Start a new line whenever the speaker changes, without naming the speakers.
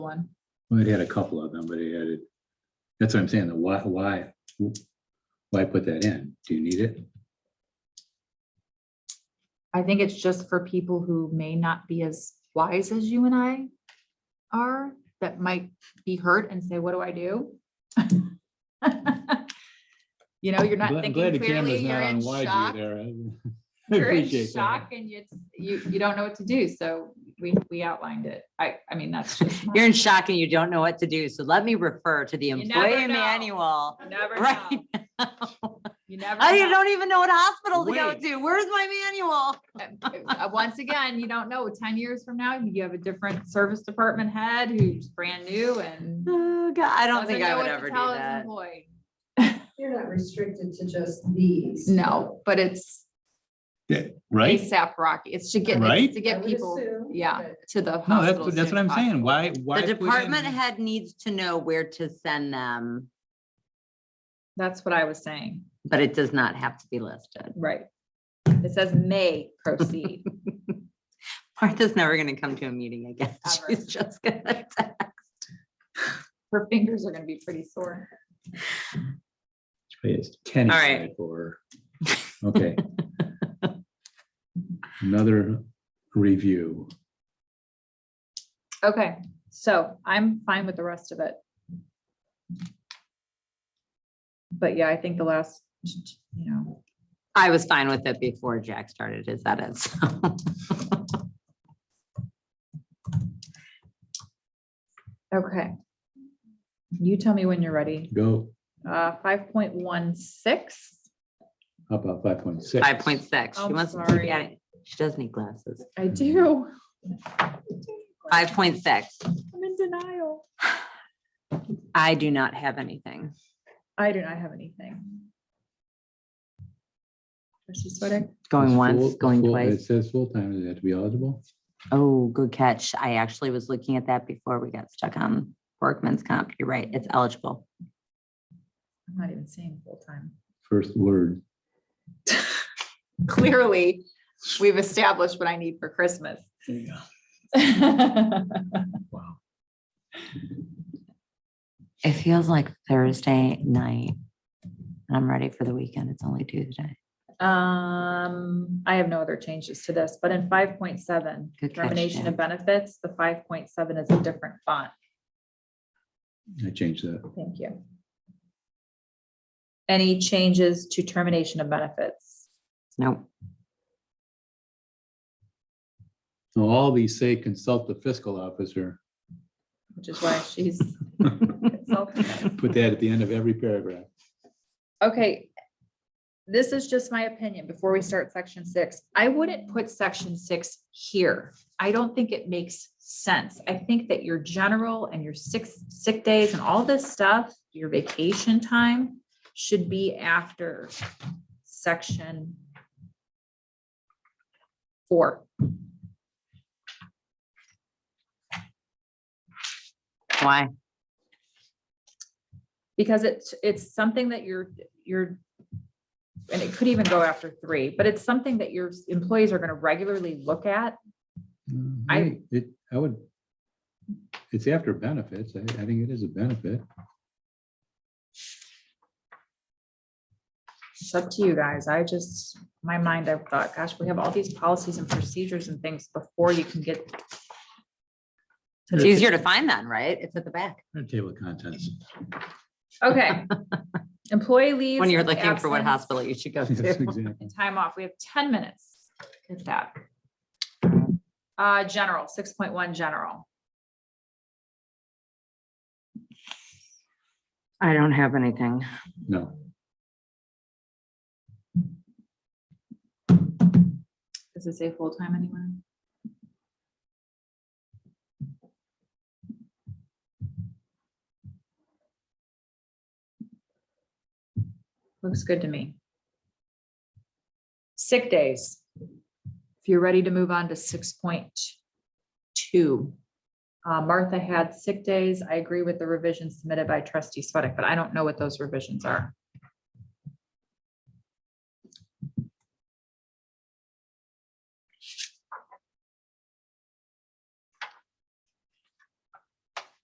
one.
Well, it had a couple of them, but it added, that's what I'm saying, the why, why, why put that in? Do you need it?
I think it's just for people who may not be as wise as you and I are, that might be hurt and say, what do I do? You know, you're
I'm
not
glad- I'm glad
thinking
the
clearly,
camera's
you're
not on
in
wide
shock.
view there. I- I
You're in
appreciate
shock
that.
and you, you, you don't know what to do, so we, we outlined it. I, I mean, that's just. my-
You're in shock and you don't know what to do. So let me refer to the
You never
employee
know.
manual.
You Never
Right.
know. You never.
I
know.
don't even know what hospital to go
Wait.
to. Where's my manual?
uh, once again, you don't know, ten years from now, you have a different service department head who's brand new and.
Oh, God, I don't
doesn't
think
know
I
what
would
to
ever do
tell his
that.
employee.
You're not restricted to just these.
No, but it's
Right?
ASAP Rocky. It's to get, it's
Right?
to
I
get
would
people,
assume
yeah,
that-
to the.
No,
hospital
that's,
as
that's
soon
what I'm
as
saying. Why, why?
The
put in-
department head needs to know where to send them,
possible. That's what I was saying,
but it does not have to be listed.
right. It says may proceed.
Martha's never gonna come to a meeting again.
Ever.
She's just gonna.
Her fingers are gonna be pretty sore.
It's Ten.
All right.
Or, okay. Another review.
Okay, so I'm fine with the rest of it. But yeah, I think the last, you know.
I was fine with it before Jack started his edits.
Okay. You tell me when you're ready.
Go
Uh, five point one six.
up about five point six.
Five point six. She
I'm
wants to
sorry.
keep adding- She does need glasses.
I do.
Five point six.
I'm in denial.
I do not have anything.
I do not have anything. Trustee Swedick?
Going
It's
once,
full-
going
full- It
twice.
says full-time, does it have to be eligible?
Oh, good catch. I actually was looking at that before we got stuck on workman's comp. You're right. It's eligible.
I'm not even seeing full time.
First word.
Clearly, we've established what I need for Christmas.
Yeah. Wow.
It feels like Thursday night. and I'm ready for the weekend. It's only Tuesday.
Um, I have no other changes to this, but in five point seven,
Good catch,
termination
Jan.
of benefits, the five point seven is a different font.
I changed that.
Thank you. Any changes to termination of benefits?
No,
So all these say consult the fiscal officer.
Which is why she's. consulting.
Put that at the end of every paragraph.
Okay. This is just my opinion before we start section six. I wouldn't put section six here. I don't think it makes sense. I think that your general and your six sick days and all this stuff, your vacation time should be after section four.
why?
because it's, it's something that you're, you're, and it could even go after three, but it's something that your employees are gonna regularly look at.
Mm,
I-
hey, It, I would. It's after benefits. I, I think it is a benefit.
It's up to you guys. I just, my mind, I thought, gosh, we have all these policies and procedures and things before you can get.
It's easier to find then, right? It's at the back.
Our Table of contents.
Okay. Employee leaves.
When you're looking for what
absence,
hospital you should go
Yes,
to.
exactly.
And time off. We have ten minutes. Get that. Uh, general, six point one, general.
I don't have anything.
No,
Does it say full-time anywhere? Looks good to me. Sick days. If you're ready to move on to six point two. Uh, Martha had sick days. I agree with the revisions submitted by trustee Sweattick, but I don't know what those revisions are.